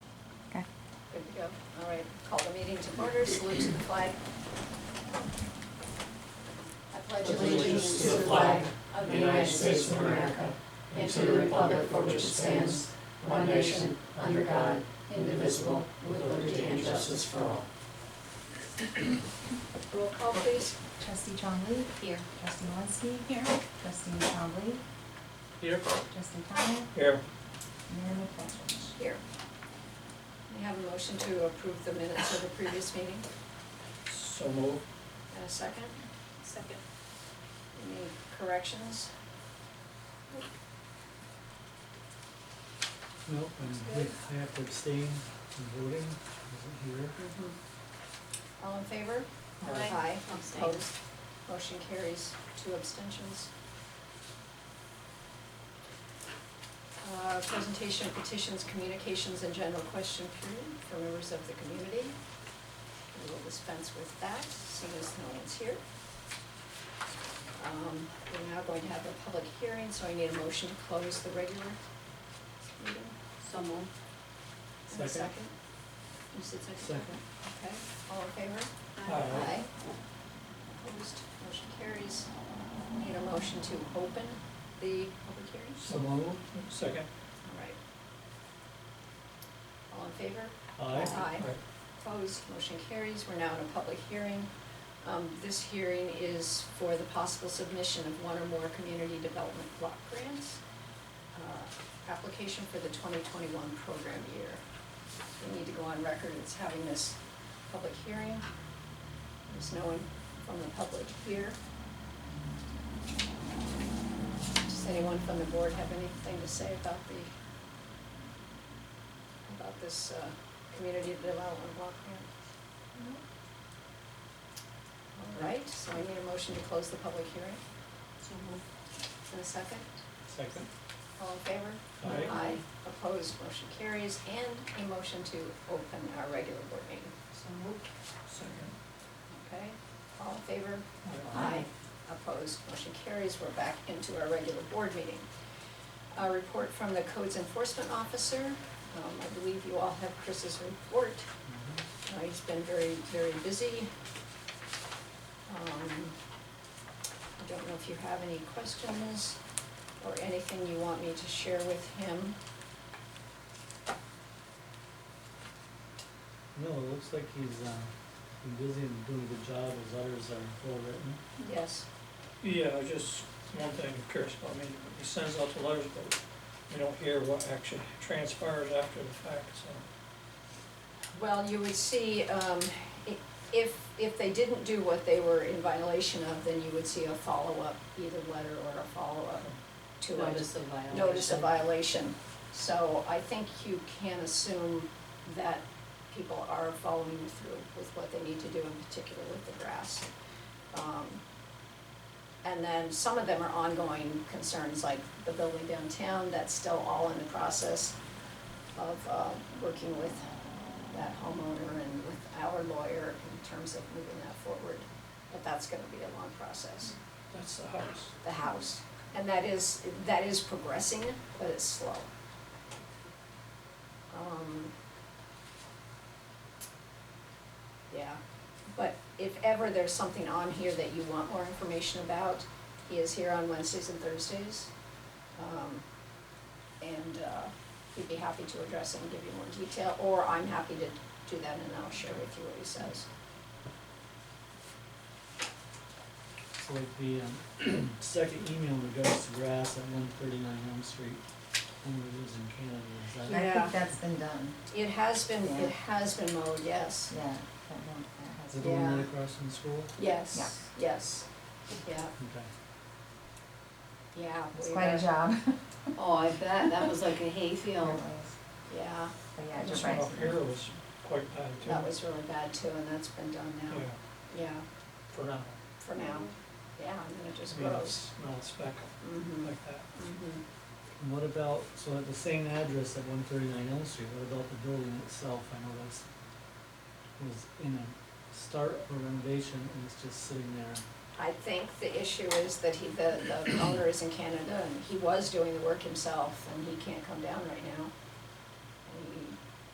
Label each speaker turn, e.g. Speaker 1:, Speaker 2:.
Speaker 1: Good to go. All right, call the meeting to order, salute to the flag. I pledge allegiance to the flag of the United States of America and to the republic for which it stands, one nation, under God, indivisible, with liberty and justice for all. Roll call, please.
Speaker 2: Trustee Chombley. Here. Trustee Malinsky. Here. Trustee Chombley.
Speaker 3: Here.
Speaker 2: Trustee Connor.
Speaker 3: Here.
Speaker 2: Mayor McFetrich.
Speaker 1: Here. We have a motion to approve the minutes of the previous meeting.
Speaker 3: So move.
Speaker 1: And a second? Second. Any corrections?
Speaker 4: Nope, and I have to abstain from voting, I wasn't here.
Speaker 1: All in favor?
Speaker 3: Aye.
Speaker 5: Abstain.
Speaker 1: Opposed? Motion carries, two abstentions. Uh, Presentation of petitions, communications, and general question period for members of the community. We will dispense with that, seeing as no one's here. Um, We're now going to have a public hearing, so I need a motion to close the regular meeting.
Speaker 5: So moved.
Speaker 1: And a
Speaker 4: Second.
Speaker 1: second? You said second?
Speaker 4: Second.
Speaker 1: Okay, all in favor?
Speaker 4: Aye.
Speaker 1: Opposed, motion carries. Need a motion to open the public hearing?
Speaker 4: So move. Second.
Speaker 1: All right. All in favor?
Speaker 4: Aye.
Speaker 1: Aye. Opposed, motion carries. We're now in a public hearing. Um, this hearing is for the possible submission of one or more community development block grants. uh, Application for the twenty twenty-one program year. We need to go on record as having this public hearing. There's no one from the public here. Does anyone from the board have anything to say about the, about this, uh, community development block grant? All right, so I need a motion to close the public hearing.
Speaker 5: So moved.
Speaker 1: In a second,
Speaker 4: Second.
Speaker 1: all in favor?
Speaker 4: Aye.
Speaker 1: Opposed, motion carries, and a motion to open our regular board meeting.
Speaker 5: So moved.
Speaker 4: Second.
Speaker 1: Okay, all in favor?
Speaker 4: Aye.
Speaker 1: Opposed, motion carries, we're back into our regular board meeting. A report from the codes enforcement officer, um, I believe you all have Chris's report.
Speaker 4: Mhm.
Speaker 3: Mm-hmm.
Speaker 1: Uh, he's been very, very busy. Um, I don't know if you have any questions or anything you want me to share with him.
Speaker 4: No, it looks like he's, uh, been busy and doing a good job, his letters are well written.
Speaker 1: Yes,
Speaker 3: Yeah, I just, one thing I'm curious about, I mean, he sends out the letters, but we don't hear what actually transpires after the fact, so.
Speaker 1: well, you would see, um, i- if, if they didn't do what they were in violation of, then you would see a follow-up, either letter or a follow-up to a
Speaker 5: Notice of violation.
Speaker 1: notice of violation. So I think you can assume that people are following through with what they need to do, in particular with the grass. Um, And then some of them are ongoing concerns, like the building downtown, that's still all in the process of uh, working with that homeowner and with our lawyer in terms of moving that forward. But that's gonna be a long process
Speaker 3: That's the house.
Speaker 1: the house. And that is, that is progressing, but it's slow. Um, Yeah, but if ever there's something on here that you want more information about, he is here on Wednesdays and Thursdays. Um, And uh, he'd be happy to address it and give you more detail, or I'm happy to do that and I'll share with you what he says.
Speaker 4: So like the, um, second email in regards to grass at one thirty-nine Elm Street, when we lives in Canada, is that?
Speaker 2: Yeah, I
Speaker 1: Yeah.
Speaker 2: think that's been done,
Speaker 1: It has been,
Speaker 2: Yeah.
Speaker 1: it has been mowed, yes.
Speaker 2: yeah, that one, that
Speaker 4: Is
Speaker 2: has
Speaker 4: it
Speaker 2: been.
Speaker 4: the one
Speaker 1: Yeah.
Speaker 4: right across from the school?
Speaker 1: Yes, yes, yeah,
Speaker 4: Okay.
Speaker 1: yeah.
Speaker 2: It's
Speaker 1: we
Speaker 2: quite a
Speaker 1: were-
Speaker 2: job.
Speaker 5: Oh, I bet, that was like a
Speaker 2: It
Speaker 5: hayfield.
Speaker 2: was.
Speaker 1: Yeah,
Speaker 2: But yeah,
Speaker 3: This
Speaker 2: just
Speaker 3: one
Speaker 2: right.
Speaker 3: up here was quite bad too.
Speaker 1: that was really bad too, and that's been done
Speaker 3: Yeah,
Speaker 1: now, yeah,
Speaker 3: for now.
Speaker 1: for now, yeah, and then it just
Speaker 3: I mean,
Speaker 1: grows.
Speaker 3: it's, no, it's back
Speaker 1: Mm-hmm,
Speaker 3: like that.
Speaker 1: mm-hmm,
Speaker 4: And what about, so at the same address at one thirty-nine Elm Street, what about the building itself? I know that's, was in a start of a renovation and it's just sitting there.
Speaker 1: I think the issue is that he, the, the owner is in Canada, and he was doing the work himself, and he can't come down right now.